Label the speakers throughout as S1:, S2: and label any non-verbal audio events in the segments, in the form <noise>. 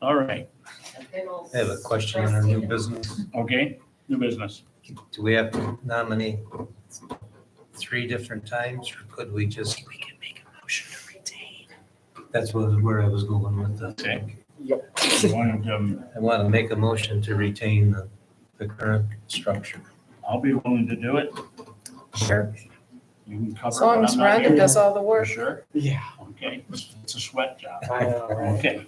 S1: All right,
S2: I
S3: I have a question on our new business.
S1: okay, new business.
S3: Do we have to nominate three different times, or could we just? We can make a motion to retain. That's what, where I was going with that.
S1: Okay. You want to, um,
S3: I want to make a motion to retain the, the current structure.
S1: I'll be willing to do it.
S3: Sure.
S1: You can cover.
S4: As long
S1: when
S4: as
S1: I'm not
S4: Rhonda
S1: here.
S4: does all the
S1: For
S4: work.
S1: sure?
S5: Yeah.
S1: Okay, it's a sweat job. <laughs>
S5: I'll
S1: Okay,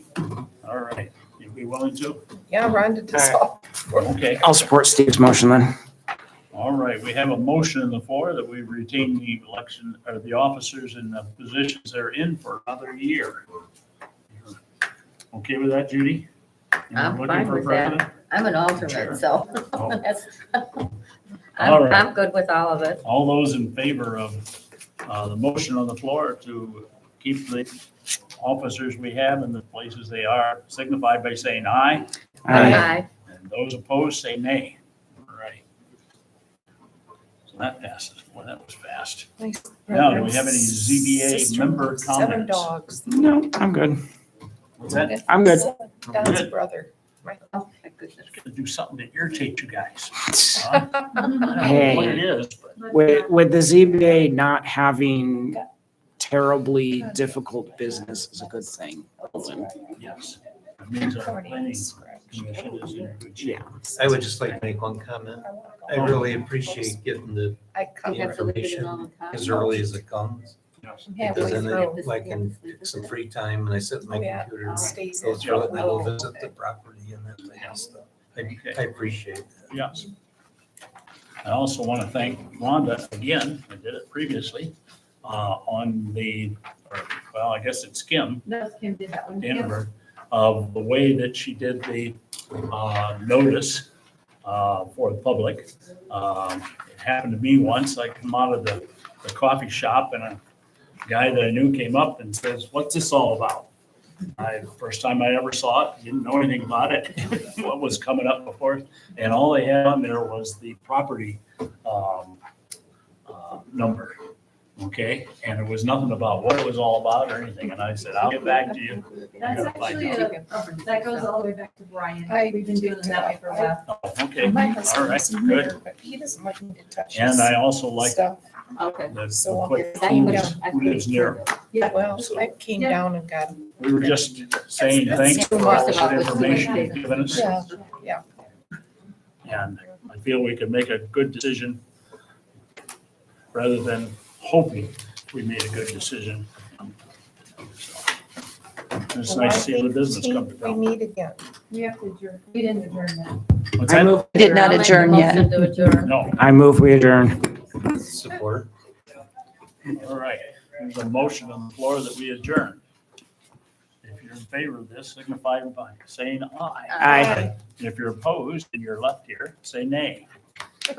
S1: all right. You be willing to?
S4: Yeah, Rhonda does
S5: All right.
S4: all.
S1: Okay,
S5: support Steve's motion then.
S1: all right. We have a motion on the floor that we retain the election, or the officers and the positions they're in for another year. Okay with that, Judy? You
S2: I'm
S1: looking
S2: fine
S1: for
S2: with that.
S1: president?
S2: I'm an
S1: Sure.
S2: alternate, so <laughs>
S1: Oh.
S2: that's,
S1: All
S2: I'm,
S1: right.
S2: I'm good with all of it.
S1: All those in favor of uh, the motion on the floor to keep the officers we have in the places they are signify by saying aye.
S5: Aye.
S2: Aye.
S1: And those opposed say nay. All right. So that passes. Boy, that was fast. Now, do we have any ZBA
S4: Sister-
S1: member
S4: Seven
S1: comments?
S4: dogs.
S5: No, I'm good.
S1: What's that?
S5: I'm good.
S4: Don's
S1: Good.
S4: brother.
S2: Oh, my goodness.
S1: Gonna do something to irritate you guys.
S4: <laughs>
S1: huh? I don't know what it is, but
S5: With, with the ZBA not having terribly difficult business is a good thing.
S1: yes. It means our planning
S4: Scratch.
S1: commission is in good shape.
S5: Yeah.
S3: I would just like to make one comment. I really appreciate getting the,
S4: I
S2: You
S4: cut
S2: have to look at it
S3: Information
S2: all the time.
S3: as
S4: Oh,
S3: early as it comes.
S1: Yes.
S4: halfway
S3: Because then
S4: through.
S3: it, like, in some free time, and I sit at
S4: Oh,
S3: my computer and
S4: Stays.
S3: go through it, and I go
S4: Oh,
S3: visit
S4: okay.
S3: the property and that kind of stuff. I, I appreciate that.
S1: Yes. I also want to thank Rhonda again, I did it previously, uh, on the, or, well, I guess it's Kim
S2: No, Kim did that one.
S1: Danberg, of the way that she did the uh, notice uh, for the public. Um, It happened to me once, I come out of the the coffee shop and a guy that I knew came up and says, what's this all about? I, first time I ever saw it, didn't know anything about it, <laughs> what was coming up before. And all they had on there was the property um, uh, number, okay? And it was nothing about what it was all about or anything. And I said, I'll get back to you.
S6: That's
S1: Gotta find
S6: actually,
S1: out.
S6: a- uh, that goes all the way back to Brian.
S4: I-
S6: We've been doing it that way for a while.
S1: Oh, Okay,
S4: My
S1: all
S4: husband
S1: right,
S4: is a
S1: good.
S4: nerd, but he doesn't like me to touch
S1: And
S4: his
S1: I also like the
S4: stuff.
S2: Okay.
S1: the
S4: So-
S1: quick
S2: That you
S1: who
S2: would-
S1: lives-
S2: I
S1: who lives
S2: could-
S1: near.
S4: Well, I came
S6: Yeah.
S4: down and got,
S1: We were just saying thanks for all this information you've given us.
S4: yeah,
S1: And I feel we could make a good decision rather than hoping we made a good decision. It's nice to see other business
S4: we
S1: come to
S4: we
S1: town.
S4: need again.
S6: We have to adjourn. We didn't adjourn that.
S1: What's
S5: I
S1: that?
S5: move,
S7: Did not adjourn yet.
S2: I'll make a motion to
S3: <laughs>
S2: adjourn.
S1: No,
S5: I move we adjourn.
S4: <laughs>
S3: Support.
S1: all right. There's a motion on the floor that we adjourn. If you're in favor of this, signify by saying aye.
S5: Aye.
S1: And if you're opposed and you're left here, say nay.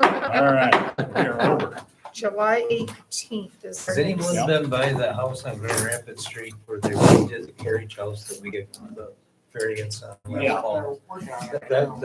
S1: All right, we're over.
S4: <laughs> July eighteenth is. our
S3: Has
S4: next-
S3: anyone been by the house on Grand Rapids Street where they redid the carriage house that we get the variance on?
S1: Yeah.
S3: That, that